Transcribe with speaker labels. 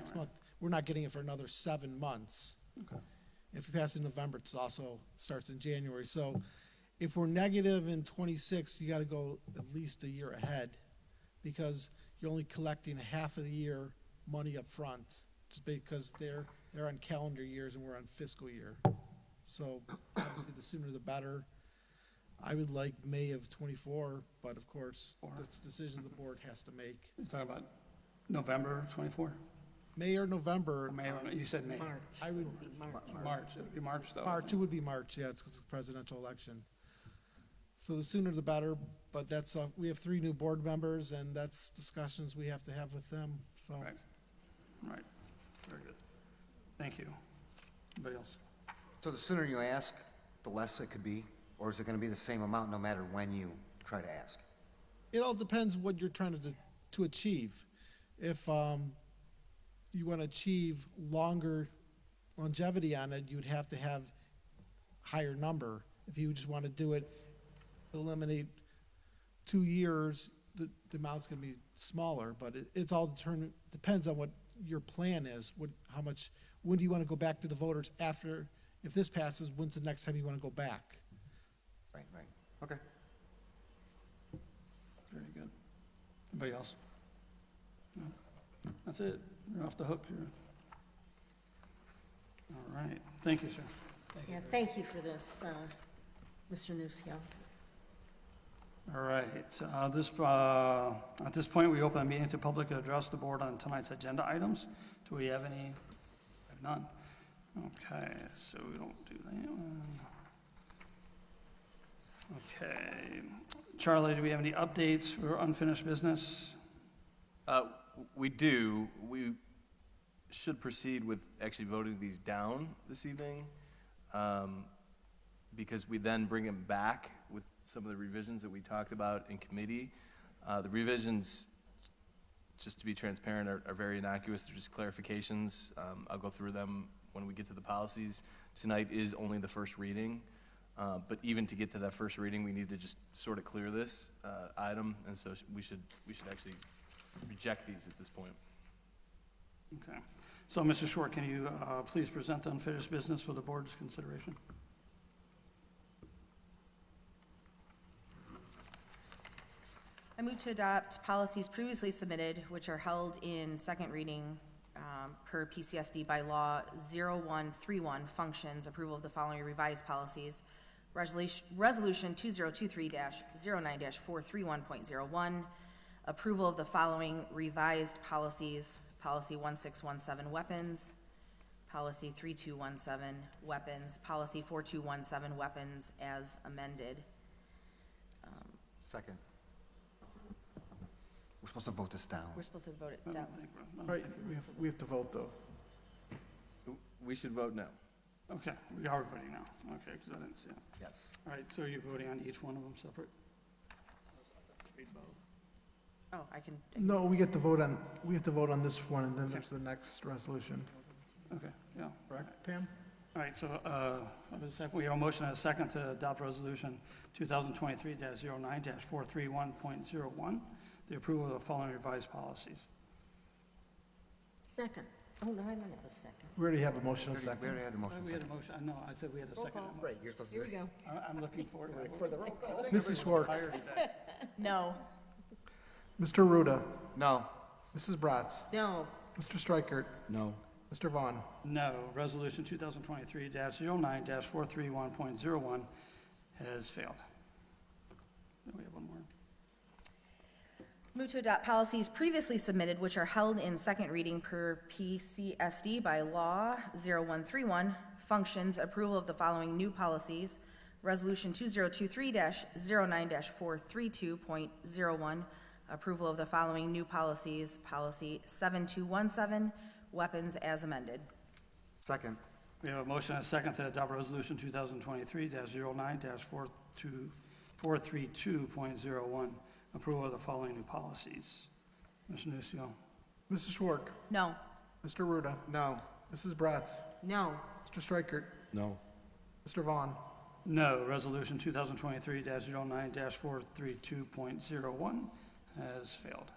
Speaker 1: next month, we're not getting it for another seven months.
Speaker 2: Okay.
Speaker 1: If we pass it in November, it's also starts in January. So if we're negative in twenty-six, you gotta go at least a year ahead because you're only collecting half of the year money up front, just because they're, they're on calendar years and we're on fiscal year. So obviously the sooner the better. I would like May of twenty-four, but of course,
Speaker 2: Or-
Speaker 1: that's a decision the board has to make.
Speaker 2: You're talking about November twenty-four?
Speaker 1: May or November.
Speaker 2: Or May,
Speaker 1: um,
Speaker 2: you said May.
Speaker 3: March.
Speaker 1: I would-
Speaker 3: It'll be March.
Speaker 2: March, it would be March though.
Speaker 1: March, it would be March, yeah, it's 'cause it's a presidential election. So the sooner the better, but that's, uh, we have three new board members, and that's discussions we have to have with them, so.
Speaker 2: Right. All right, very good. Thank you. Anybody else?
Speaker 4: So the sooner you ask, the less it could be? Or is it going to be the same amount no matter when you try to ask?
Speaker 1: It all depends what you're trying to, d- to achieve. If, um, you wanna achieve longer longevity on it, you'd have to have higher number. If you just wanna do it, eliminate two years, the, the amount's gonna be smaller, but it, it's all determined, depends on what your plan is, what, how much, when do you wanna go back to the voters after, if this passes, when's the next time you wanna go back?
Speaker 4: Right, right. Okay.
Speaker 2: Very good. Anybody else? No? That's it. You're off the hook here. All right. Thank you, sir.
Speaker 3: Yeah, thank you for this, uh, Mr. Nucio.
Speaker 2: All right. Uh, this, uh, at this point, we open the meeting to public address the board on tonight's agenda items. Do we have any? We have None. Okay, so we don't do that one. Okay. Charlie, do we have any updates for unfinished business?
Speaker 5: Uh, We do. We should proceed with actually voting these down this evening, um, because we then bring them back with some of the revisions that we talked about in committee. Uh, The revisions, just to be transparent, are are very innocuous. They're just clarifications. Um, I'll go through them when we get to the policies. Tonight is only the first reading, uh, but even to get to that first reading, we need to just sort of clear this uh, item, and so sh- we should, we should actually reject these at this point.
Speaker 2: Okay. So, Mr. Short, can you uh, please present the unfinished business for the board's consideration?
Speaker 6: I move to adopt policies previously submitted, which are held in second reading um, per PCSD by law 0131, functions, approval of the following revised policies. Resolution Resolution 2023-09-431.01, approval of the following revised policies. Policy 1617, weapons. Policy 3217, weapons. Policy 4217, weapons as amended.
Speaker 4: Second. We're supposed to vote this down.
Speaker 6: We're supposed to vote it
Speaker 2: I
Speaker 6: down.
Speaker 2: don't think we're- I don't
Speaker 1: Right,
Speaker 2: think
Speaker 1: we have, we have to vote, though.
Speaker 5: We should vote no.
Speaker 2: we're- Okay, we are voting now. Okay, because I didn't see it.
Speaker 4: Yes.
Speaker 2: All right, so you're voting on each one of them separate?
Speaker 6: Oh, I can,
Speaker 1: No, we get to vote on, we have to vote on this one, and then there's the next resolution.
Speaker 2: Okay, yeah. All
Speaker 1: Pam?
Speaker 2: right, so uh, of the sec- we have a motion and a second to adopt Resolution 2023-09-431.01, the approval of the following revised policies.
Speaker 3: Second. Oh, no, I don't have a second.
Speaker 1: We already have a motion
Speaker 4: We
Speaker 1: and a
Speaker 4: already- we
Speaker 1: second.
Speaker 4: already had
Speaker 2: I
Speaker 4: the
Speaker 2: thought
Speaker 4: motion
Speaker 2: We had a
Speaker 4: second.
Speaker 2: motion, I know, I said we had a second.
Speaker 4: Right, you're supposed to do it.
Speaker 3: go.
Speaker 2: I- I'm looking forward to it.
Speaker 4: For the roll call.
Speaker 1: Mrs. Schwark,
Speaker 2: Tired today.
Speaker 6: no.
Speaker 1: Mr. Ruda,
Speaker 4: No.
Speaker 1: Mrs. Bratz,
Speaker 3: No,
Speaker 1: Mr. Strikert. No. Mr. Vaughn.
Speaker 2: No, Resolution 2023-09-431.01 has failed. Oh, We have one more.
Speaker 6: Move to adopt policies previously submitted, which are held in second reading per PCSD by law 0131, functions, approval of the following new policies. Resolution 2023-09-432.01, approval of the following new policies. Policy 7217, weapons as amended.
Speaker 4: Second.
Speaker 2: We have a motion and a second to adopt Resolution 2023-09-432.01, approval of the following new policies. Mr. Nucio.
Speaker 1: Mrs. Schwark,
Speaker 6: No.
Speaker 1: Mr. Ruda,
Speaker 4: No.
Speaker 1: Mrs. Bratz,
Speaker 3: no,
Speaker 1: Mr. Strikert. No. Mr. Vaughn.
Speaker 2: No, Resolution 2023-09-432.01 has failed.